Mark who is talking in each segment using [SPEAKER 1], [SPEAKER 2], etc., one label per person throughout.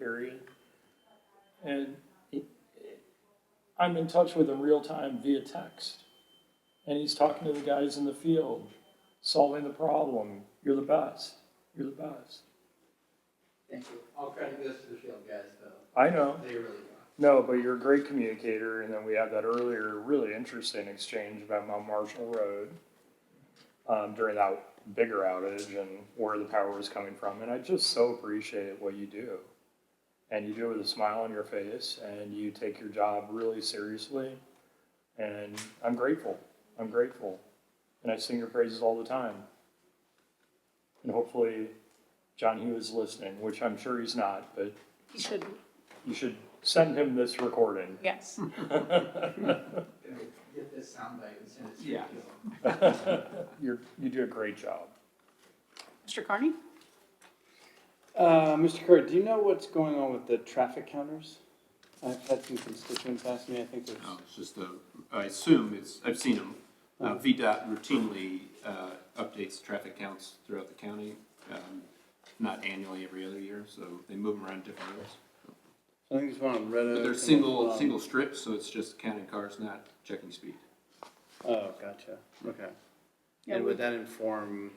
[SPEAKER 1] period. And he- I'm in touch with him real time via text. And he's talking to the guys in the field, solving the problem. You're the best. You're the best.
[SPEAKER 2] Thank you. All credit goes to the field guys, though.
[SPEAKER 1] I know.
[SPEAKER 2] They really are.
[SPEAKER 1] No, but you're a great communicator. And then we had that earlier, really interesting exchange about Mount Marshall Road um, during that bigger outage and where the power was coming from. And I just so appreciate what you do. And you do it with a smile on your face and you take your job really seriously. And I'm grateful. I'm grateful. And I sing your praises all the time. And hopefully, John Hughes is listening, which I'm sure he's not, but
[SPEAKER 3] He should,
[SPEAKER 1] you should send him this recording.
[SPEAKER 3] yes.
[SPEAKER 4] Hmm.
[SPEAKER 2] Gonna Get this soundbite and send it to the
[SPEAKER 4] Yeah.
[SPEAKER 2] field.
[SPEAKER 1] You're, you do a great job.
[SPEAKER 3] Mr. Carney?
[SPEAKER 4] Uh, Mr. Kerr, do you know what's going on with the traffic counters? I've had some constituents ask me, I think there's,
[SPEAKER 5] No, it's just a, I assume it's, I've seen them. Uh, VDOT routinely, uh, updates traffic counts throughout the county, um, not annually, every other year, so they move them around different roads.
[SPEAKER 4] I think there's one on Red Oak.
[SPEAKER 5] But they're
[SPEAKER 4] and
[SPEAKER 5] single,
[SPEAKER 4] one-
[SPEAKER 5] single strips, so it's just counting cars, not checking speed.
[SPEAKER 4] Oh, gotcha, okay.
[SPEAKER 3] Yeah,
[SPEAKER 4] And
[SPEAKER 3] we-
[SPEAKER 4] would that inform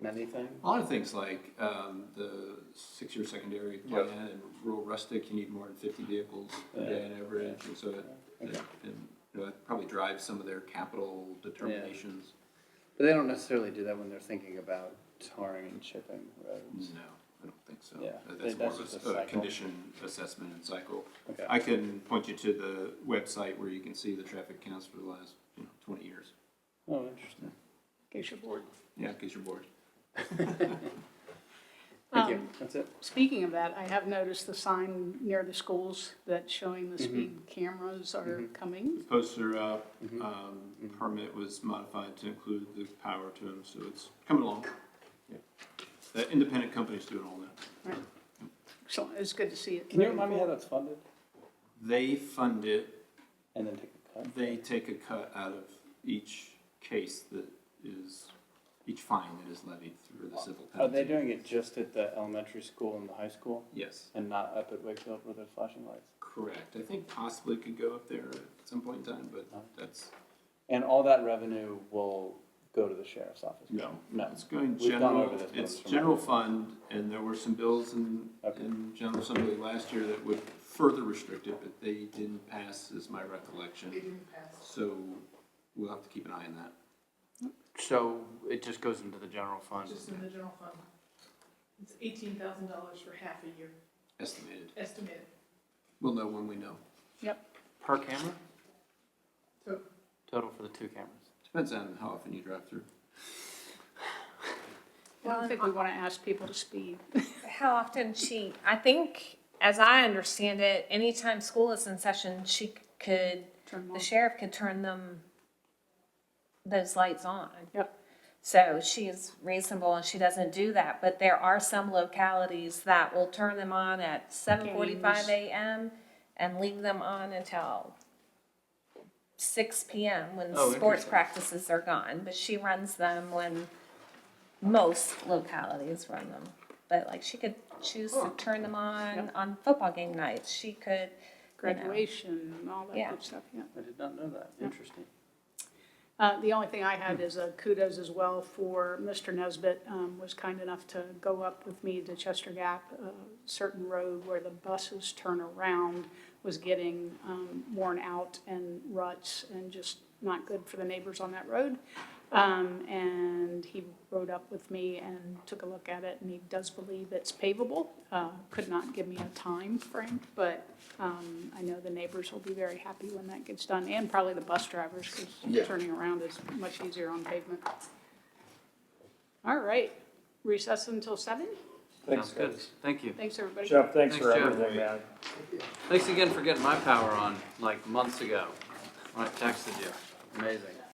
[SPEAKER 4] many things?
[SPEAKER 5] A lot of things like, um, the six-year secondary plan and rural rustic, you need more than fifty vehicles a day on average, and so it, it, and, you know, it probably drives some of their capital determinations.
[SPEAKER 4] But they don't necessarily do that when they're thinking about tarring and chipping roads.
[SPEAKER 5] No, I don't think so.
[SPEAKER 4] Yeah,
[SPEAKER 5] That-
[SPEAKER 4] they-
[SPEAKER 5] That's more of
[SPEAKER 4] that's
[SPEAKER 5] a
[SPEAKER 4] just
[SPEAKER 5] s-
[SPEAKER 4] a
[SPEAKER 5] a
[SPEAKER 4] cycle.
[SPEAKER 5] condition assessment and cycle.
[SPEAKER 4] Okay.
[SPEAKER 5] Mm. I can point you to the website where you can see the traffic counts for the last, you know, twenty years.
[SPEAKER 4] Oh, interesting.
[SPEAKER 3] in case you're bored.
[SPEAKER 5] Yeah, in case you're bored.
[SPEAKER 4] Thank you, that's it.
[SPEAKER 3] Um, Speaking of that, I have noticed the sign near the schools that's showing the
[SPEAKER 4] Mm-hmm.
[SPEAKER 3] speed cameras are coming.
[SPEAKER 5] Posts are up,
[SPEAKER 4] Mm-hmm.
[SPEAKER 5] um, permit was modified to include the power to them, so it's coming along. Yeah, The independent company's doing all that.
[SPEAKER 3] Right. Excellent, it's good to see it.
[SPEAKER 4] Can you remind me how that's funded?
[SPEAKER 5] They fund it,
[SPEAKER 4] And then take a cut?
[SPEAKER 5] they take a cut out of each case that is, each fine that is levied through the civil penalty.
[SPEAKER 4] Are they Oh, doing it just at the elementary school and the high school
[SPEAKER 5] Yes.
[SPEAKER 4] and not up at Wakefield where there's flashing lights?
[SPEAKER 5] Correct. I think possibly could go up there at some point in time, but that's,
[SPEAKER 4] And all that revenue will go to the sheriff's office?
[SPEAKER 5] no,
[SPEAKER 4] No.
[SPEAKER 5] no, it's going
[SPEAKER 4] We've gone over
[SPEAKER 5] general,
[SPEAKER 4] this once
[SPEAKER 5] it's
[SPEAKER 4] from-
[SPEAKER 5] general fund, and there were some bills in,
[SPEAKER 4] Okay.
[SPEAKER 5] in general assembly last year that would further restrict it, but they didn't pass, is my recollection. They didn't pass. So we'll have to keep an eye on that.
[SPEAKER 4] So it just goes into the general fund?
[SPEAKER 6] Just in the general fund. It's eighteen thousand dollars for half a year,
[SPEAKER 5] Estimated.
[SPEAKER 6] estimated.
[SPEAKER 5] We'll know when we know.
[SPEAKER 3] Yep,
[SPEAKER 4] Per camera?
[SPEAKER 6] So
[SPEAKER 4] Total for the two cameras?
[SPEAKER 5] Depends on how often you drive through.
[SPEAKER 3] I don't think we want to ask people to speed.
[SPEAKER 7] How often she, I think, as I understand it, anytime school is in session, she could,
[SPEAKER 3] Turn them
[SPEAKER 7] the
[SPEAKER 3] off.
[SPEAKER 7] sheriff could turn them, those lights on.
[SPEAKER 3] Yep.
[SPEAKER 7] So she is reasonable and she doesn't do that, but there are some localities that will turn them on at seven forty-five AM and leave them on until six PM when
[SPEAKER 4] Oh,
[SPEAKER 7] sports
[SPEAKER 4] interesting.
[SPEAKER 7] practices are gone, but she runs them when most localities run them. But like she could choose to turn them on on football game nights, she could, you know.
[SPEAKER 3] Graduation and all that
[SPEAKER 7] Yeah.
[SPEAKER 3] good stuff, yeah.
[SPEAKER 4] I did not know that. Interesting.
[SPEAKER 3] Uh, The only thing I
[SPEAKER 4] Hmm.
[SPEAKER 3] had is uh, kudos as well for Mr. Nesbit, um, was kind enough to go up with me to Chester Gap, a certain road where the buses turn around was getting um, worn out and ruts and just not good for the neighbors on that road. Um, And he rode up with me and took a look at it, and he does believe it's pavable. Uh, Could not give me a time frame, but um, I know the neighbors will be very happy when that gets done, and probably the bus drivers, because turning around is much easier on pavement. All right, recess until seven.
[SPEAKER 1] Thanks,
[SPEAKER 8] Sounds good.
[SPEAKER 1] guys.
[SPEAKER 8] Thank you.
[SPEAKER 3] Thanks, everybody.
[SPEAKER 1] Jeff, thanks
[SPEAKER 8] Thanks,
[SPEAKER 1] for
[SPEAKER 8] Jeff.
[SPEAKER 1] everything, man.
[SPEAKER 8] Thanks again for getting my power on like months ago when I texted you.
[SPEAKER 4] Amazing.